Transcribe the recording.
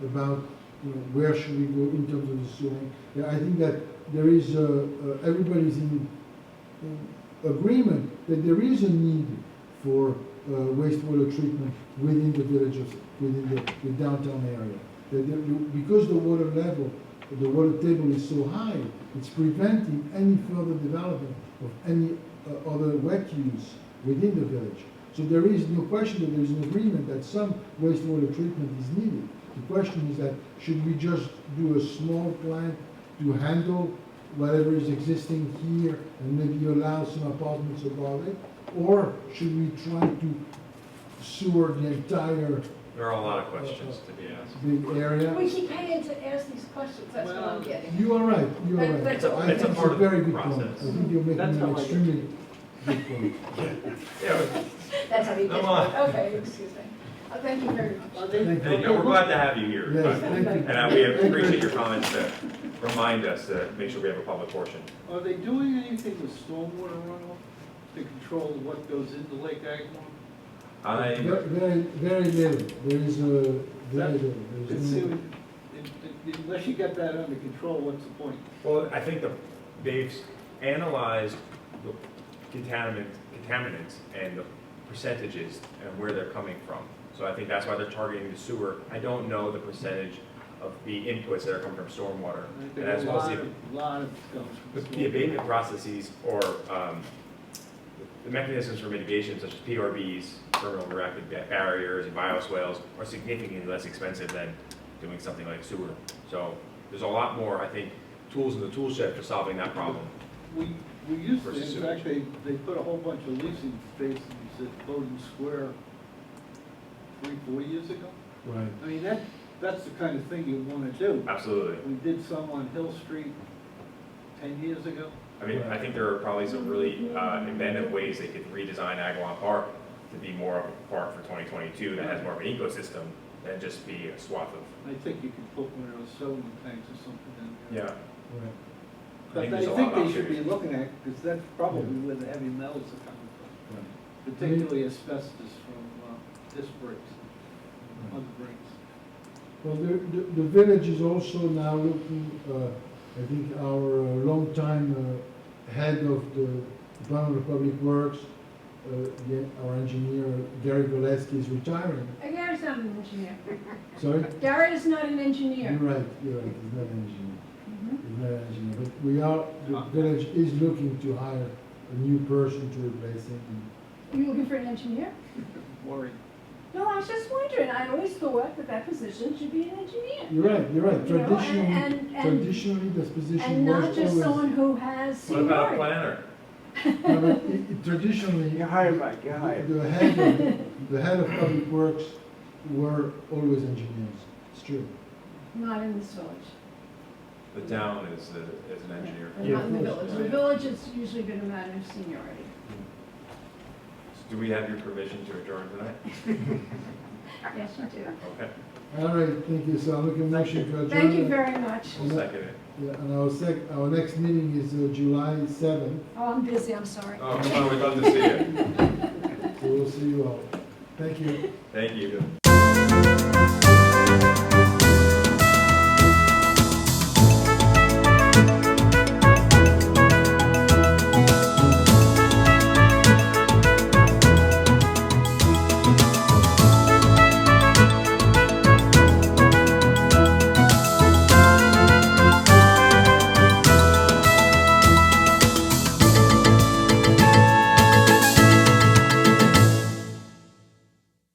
about, you know, where should we go in terms of the zoning. Yeah, I think that there is, uh, uh, everybody's in, in agreement that there is a need for uh, wastewater treatment within the villages, within the, the downtown area. That there- you- because the water level, the water table is so high, it's preventing any further development of any uh, other wet use within the village. So there is no question that there is an agreement that some wastewater treatment is needed. The question is that should we just do a small plant to handle whatever is existing here and maybe allow some apartments above it? Or should we try to sewer the entire There are a lot of questions to be asked. big We area? keep paying to ask these questions, that's what I'm getting. You are right, you are But- but right. it's a- I It's a think part a of the very good point. I process. think you're making That's how I an do it. extremely good point. Yeah, That's how we get, Come on. okay, excuse me. Oh, Thank you very much. Well, they- Thank but- yeah, we're glad to have you here. Yes, but- thank you. And uh, we appreciate your comments to remind us to make sure we have a public portion. Are they doing anything with stormwater runoff to control what goes into Lake Agawam? I, Ve- Very, very little, there is a, very little. There It's- is no- it- it- Unless you get that under control, what's the point? well, I think the, they've analyzed the contaminants, contaminants and the percentages and where they're coming from. So I think that's why they're targeting the sewer. I don't know the percentage of the inputs that are coming from stormwater. I think And that's a lot mostly of, lot of stuff. But The abatement processes or um, the mechanisms for mitigation such as PRBs, terminal reactive ba- barriers, and bioswales are significantly less expensive than doing something like sewer. So there's a lot more, I think, tools in the tool shed for solving that problem. We, we used to, Versus in fact, they, they put a whole bunch of leasing spaces at Bowden Square three, four years ago. Right. I mean, that, that's the kind of thing you want to do. Absolutely. We did some on Hill Street ten years ago. I mean, I think there are probably some really uh, inventive ways they could redesign Agawam Park to be more of a park for 2022 that has more of an ecosystem than just be a swath of, I think you could put one of those solar tanks or something in there. yeah. Right. I think But I there's a lot think of they should be opportunities. looking at, because that's probably where the heavy metals are coming Right. from, particularly asbestos from uh, disc brakes, Mm. and other brakes. Well, the, the, the village is also now looking, uh, I think our uh, longtime, uh, head of the Department of Public Works, uh, the- our engineer, Gary Gillespie is retiring, And Gary's not an engineer. sorry? Gary is not an You're engineer. right, you're right, he's not an engineer, Mhm. he's not an engineer, but we are, Ah. the village is looking to hire a new person to replace him. Are you looking for an engineer? Worried. No, I was just wondering, I always thought that that position should be an engineer. You're right, you're right, You know, and- traditionally, and- and- traditionally, this position And was not always. just someone who has What about a seniority. planner? No, but i- i- Traditionally, You're hired, Mike, you're hired. The head of, the head of public works were always engineers, it's true. Not in this village. The town is, a- is an engineer. Not in the village. The village has usually been a matter of seniority. Do we have your permission to adjourn tonight? Yes, you do. Okay, All right, thank you, so I'm looking motion to adjourn. Thank you very much. we'll second it. Yeah, and our sec, our next meeting is uh, July seventh, Oh, I'm busy, I'm sorry. Oh, come on, we'd love to see you. so we'll see you all. Thank you. Thank you.